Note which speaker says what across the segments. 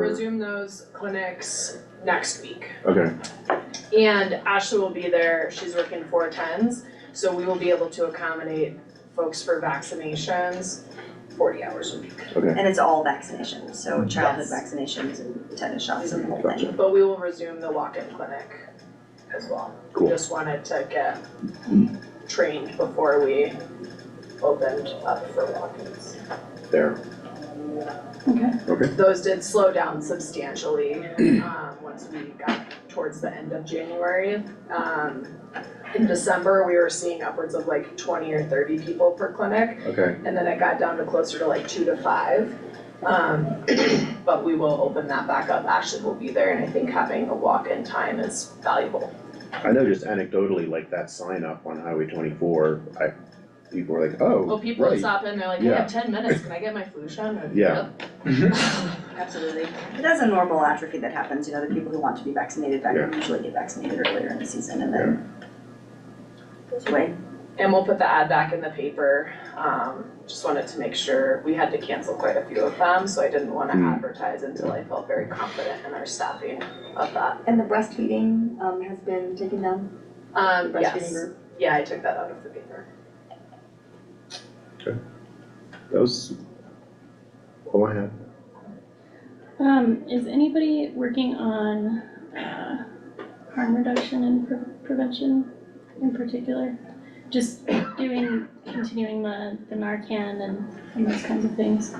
Speaker 1: resume those clinics next week.
Speaker 2: Okay,
Speaker 1: And Ashley will be there, she's working four tens, so we will be able to accommodate folks for vaccinations forty hours a week.
Speaker 2: okay,
Speaker 3: And it's all vaccinations, so childhood
Speaker 1: Yes.
Speaker 3: vaccinations and tetanus shots and the whole
Speaker 2: Gotcha.
Speaker 3: thing.
Speaker 1: But we will resume the walk-in clinic as well. We
Speaker 2: Cool.
Speaker 1: Just wanted to get trained before we opened up for walk-ins.
Speaker 2: there,
Speaker 1: Those did slow down substantially, um, once we got towards the end of January. Um, in December, we were seeing upwards of like twenty or thirty people per clinic.
Speaker 2: okay,
Speaker 1: and then it got down to closer to like two to five. Um, but we will open that back up, Ashley will be there, and I think having a walk-in time is valuable.
Speaker 2: I know just anecdotally, like that sign up on Highway twenty-four, I, people were like, oh,
Speaker 1: Well, people would
Speaker 2: right.
Speaker 1: stop in, they're like, I
Speaker 2: Yeah.
Speaker 1: have ten minutes, can I get my flu shot? And I'm like,
Speaker 2: Yeah.
Speaker 3: Absolutely. But that's a normal atrophy that happens, you know, the people who want to be vaccinated, back usually get vaccinated earlier in the season and then goes away.
Speaker 1: "Yep." And we'll put the ad back in the paper, um, just wanted to make sure, we had to cancel quite a few of them, so I didn't wanna
Speaker 2: Hmm.
Speaker 1: advertise until I felt very confident in our staffing of that.
Speaker 4: And the breastfeeding, um, has been taken down, the
Speaker 1: Um,
Speaker 4: breastfeeding
Speaker 1: yes,
Speaker 4: group?
Speaker 1: yeah, I took that out of the paper.
Speaker 2: That was all I had.
Speaker 5: Um, is anybody working on, uh, harm reduction and pre- prevention in particular? Just doing, continuing the, the Narcan and, and those kinds of things?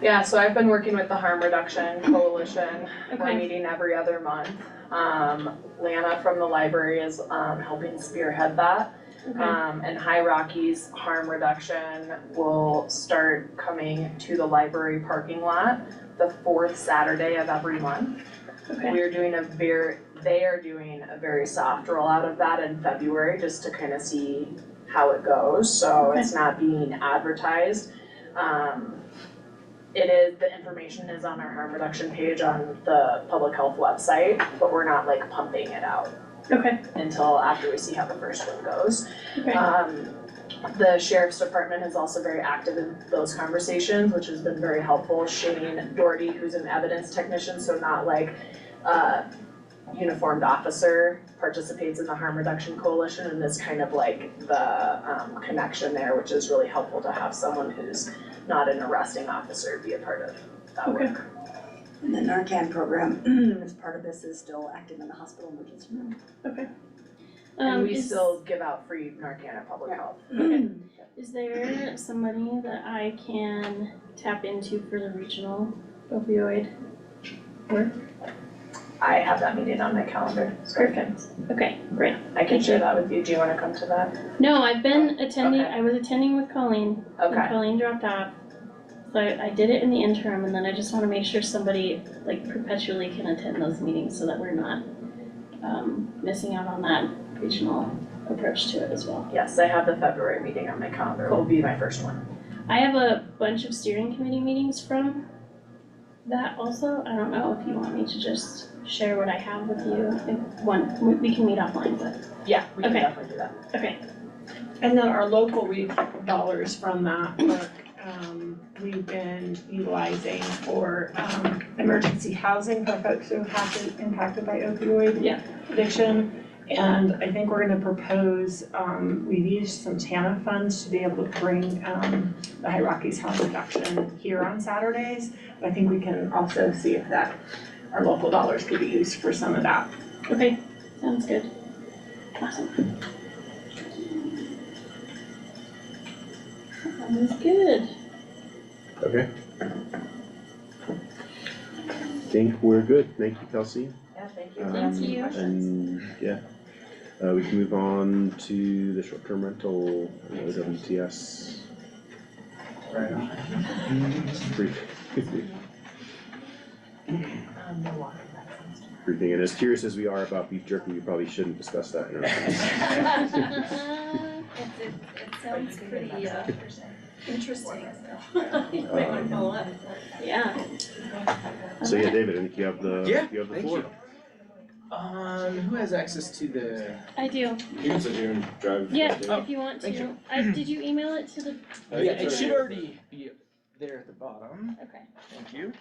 Speaker 1: Yeah, so I've been working with the Harm Reduction Coalition, We're
Speaker 5: Okay,
Speaker 1: meeting every other month. Um, Lana from the library is, um, helping spearhead that.
Speaker 5: okay,
Speaker 1: Um, and High Rockies Harm Reduction will start coming to the library parking lot the fourth Saturday of every month.
Speaker 5: okay,
Speaker 1: We're doing a very, they are doing a very soft rollout of that in February, just to kind of see how it goes, so it's not being advertised. Um, it is, the information is on our harm reduction page on the public health website, but we're not like pumping it out
Speaker 5: okay,
Speaker 1: until after we see how the first one goes.
Speaker 5: okay,
Speaker 1: Um, the sheriff's department is also very active in those conversations, which has been very helpful. Shane Doherty, who's an evidence technician, so not like a uniformed officer, participates in the harm reduction coalition and is kind of like the um connection there, which is really helpful to have someone who's not an arresting officer be a part of that
Speaker 5: Okay.
Speaker 1: work.
Speaker 3: And the Narcan program, as part of this, is still active in the hospital emergency room.
Speaker 5: okay.
Speaker 1: And
Speaker 5: Um,
Speaker 1: we
Speaker 5: is-
Speaker 1: still give out free Narcan at public health.
Speaker 5: Is there somebody that I can tap into for the regional opioid?
Speaker 1: I have that meeting on my calendar, so
Speaker 5: Perfect, okay, great.
Speaker 1: I can
Speaker 5: Thank
Speaker 1: share
Speaker 5: you.
Speaker 1: that with you. Do you wanna come to that?
Speaker 5: No, I've been attending,
Speaker 1: Okay.
Speaker 5: I was attending with Colleen And
Speaker 1: Okay.
Speaker 5: Colleen dropped off. So I, I did it in the interim and then I just wanna make sure somebody like perpetually can attend those meetings so that we're not um missing out on that regional approach to it as well.
Speaker 1: Yes, I have the February meeting on my calendar, it will be my first one.
Speaker 5: I have a bunch of steering committee meetings from that also. I don't know if you want me to just share what I have with you. If one, we- we can meet offline, but
Speaker 1: Yeah, we can
Speaker 5: Okay.
Speaker 1: definitely do that.
Speaker 6: And then our local re- dollars from that work, um, we've been utilizing for, um, emergency housing for folks who have been impacted by opioid
Speaker 5: Yeah.
Speaker 6: addiction. And I think we're gonna propose, um, we've used some TANA funds to be able to bring, um, the High Rockies Harm Reduction here on Saturdays. I think we can also see if that, our local dollars could be used for some of that.
Speaker 5: okay, sounds good. Awesome. Sounds good.
Speaker 2: Okay. Think we're good, thank you, Kelsey.
Speaker 1: Yeah, thank
Speaker 2: you.
Speaker 5: Thank
Speaker 2: Um,
Speaker 5: you.
Speaker 2: And, yeah, uh, we can move on to the short-term rental, uh, OWTS. Brief- Briefing, and as curious as we are about beef jerky, we probably shouldn't discuss that in our.
Speaker 7: It, it sounds pretty, uh, interesting. You might wanna follow up.
Speaker 5: Yeah.
Speaker 2: So, yeah, David, I think you have the,
Speaker 8: Yeah,
Speaker 2: you have the
Speaker 8: thank
Speaker 2: floor.
Speaker 8: you. Um, who has access to the?
Speaker 5: I do.
Speaker 9: You can sit here and drive.
Speaker 5: Yeah,
Speaker 9: drive.
Speaker 5: if you want
Speaker 8: thank
Speaker 5: to. I, did you email it to the,
Speaker 9: Uh,
Speaker 8: Yeah,
Speaker 9: it's
Speaker 8: it should
Speaker 9: already-
Speaker 8: already be there at the bottom.
Speaker 5: okay.
Speaker 8: Thank you.